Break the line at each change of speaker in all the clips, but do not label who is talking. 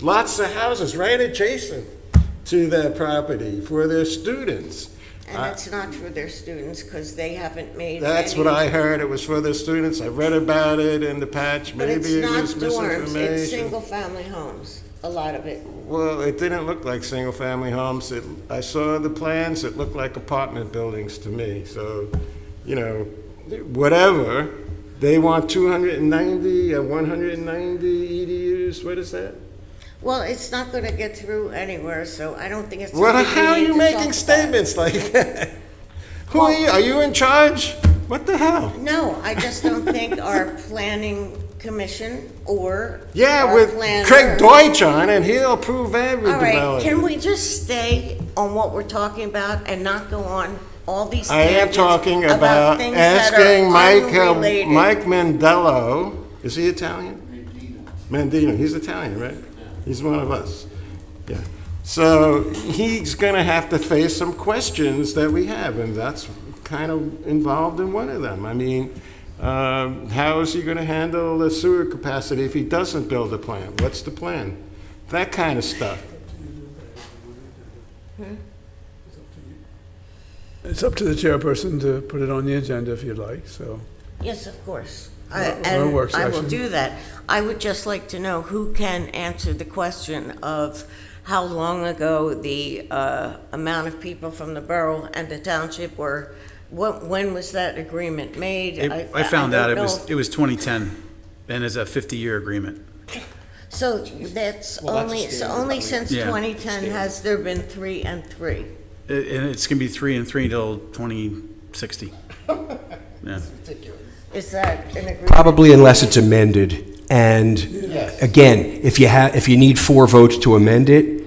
lots of houses right adjacent to that property for their students.
And it's not for their students, because they haven't made
That's
any-
what I heard, it was for the students, I read about it in the patch,
But it's
maybe it
not
was
dorms, it's
misinformation.
single-family homes, a lot of it.
Well, it didn't look like single-family homes, it, I saw the plans, it looked like apartment buildings to me, so, you know, whatever, they want 290, uh, 190 EDUs, E what is that?
Well, it's not gonna get through anywhere, so I don't think it's.
What,
something we
how are
need
you
to
making
talk about.
statements like that? Who are you, are you in charge? What the hell?
No, I just don't think our planning commission or.
Yeah,
our
with
planner-
Craig Deutsch on, and he'll approve every
All right, can
development.
we just stay on what we're talking about and not go on all these
I am
tangents
talking about
things that are
asking Mike, uh,
unrelated?
Mike Mandello, is he Italian? Mandino, he's Italian, right? He's one of us, yeah. So he's gonna have to face some questions that we have, and that's kind of involved in one of them. I mean, um, how is he gonna handle the sewer capacity if he doesn't build a plant? What's the plan? That kind of stuff.
It's up to the chairperson to put it on the agenda if you'd like, so.
Yes, of course. I-
Or- or a
And
work
I will
session.
do that. I would just like to know who can answer the question of how long ago the uh, amount of people from the borough and the township were, what, when was that agreement made?
It- I found out
out
it was, it was 2010, and it's a 50-year agreement.
So that's only, so only since
Yeah.
2010 has there been three and three.
I- And it's going to be three and three until 2060. Yeah.
Is that an agreement?
Probably unless it's amended. And again, if you have, if you need four votes to amend it,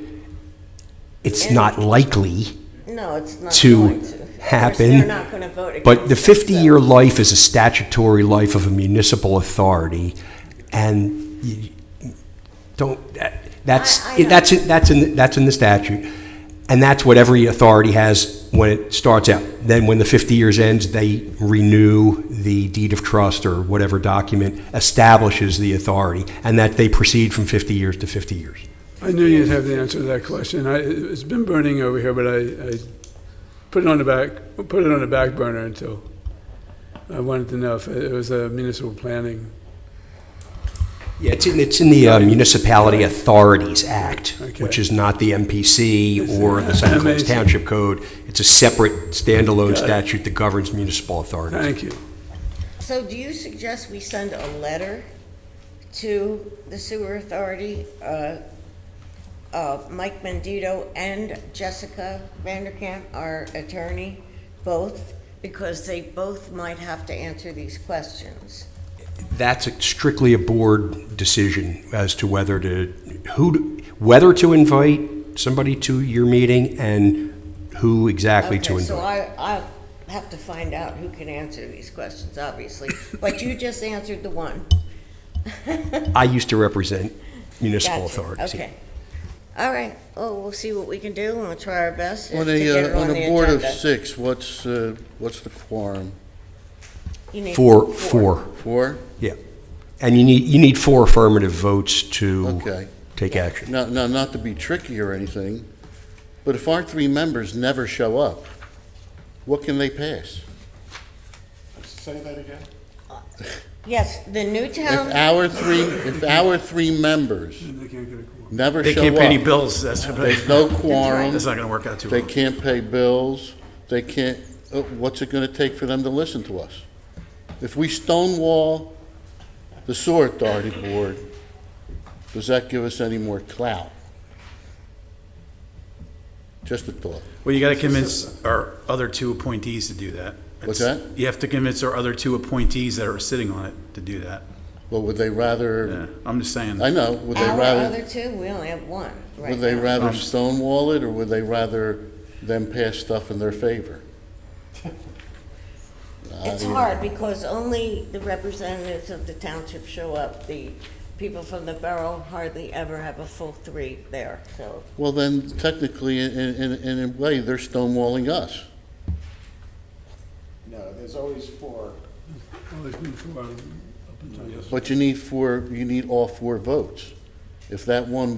it's not likely,
No, it's not
to
going to. Of course,
happen,
They're not going to vote against
but the
it, so-
50-year life is a statutory life of a municipal authority, and you don't, that- that's,
I- I know.
that's, that's in, that's in the statute. And that's what every authority has when it starts out. Then when the 50 years ends, they renew the deed of trust or whatever document establishes the authority, and that they proceed from 50 years to 50 years.
I knew you'd have the answer to that question. I, it's been burning over here, but I, I put it on the back, put it on the back burner until I wanted to know if it was a municipal planning.
Yeah, it's in, it's in the uh, Municipality Authorities Act, which
Okay.
is not the MPC or the St. Clair
Amazing.
Township Code. It's a separate standalone statute that governs municipal authorities.
Thank you.
So do you suggest we send a letter to the sewer authority uh, of Mike Mendito and Jessica Vanderkamp, our attorney, both? Because they both might have to answer these questions.
That's a- strictly a board decision as to whether to, who, to- whether to invite somebody to your meeting and who exactly to
Okay, so
invite.
I, I have to find out who can answer these questions, obviously. But you just answered the one.
I used to represent municipal
Gotcha.
authorities. yeah.
Okay. All right, well, we'll see what we can do, and we'll try our best to
On
get it
a, uh,
on
on
the
a board of
agenda.
six, what's, uh, what's the quorum?
You need
Four, four,
Four?
yeah. And you need, you need four affirmative votes to
Okay.
take action.
Now, now, not to be tricky or anything, but if our three members never show up, what can they pass?
Say that again?
Yes, the new
If
town,
our three, if our three members never
They
show
can't pay any
up,
bills, that's,
there's
that's
no
not
quorum,
going to work out too
they
well.
can't pay bills, they can't, uh, what's it gonna take for them to listen to us? If we stonewall the sewer authority board, does that give us any more clout? Just a thought.
Well, you got to convince our other two appointees to do that.
What's
It's-
that?
You have to convince our other two appointees that are sitting on it to do that.
But would they rather,
Yeah, I'm just saying.
I know, would they
our
rather,
other two, we only have one right
would they
now.
Um,
rather stonewall it, or would they rather them pass stuff in their favor?
It's hard, because only the representatives of the township show up. The people from the borough hardly ever have a full three there, so.
Well, then technically, in, in, in a way, they're stonewalling us.
No, there's always four.
But you need four, you need all four votes. If that one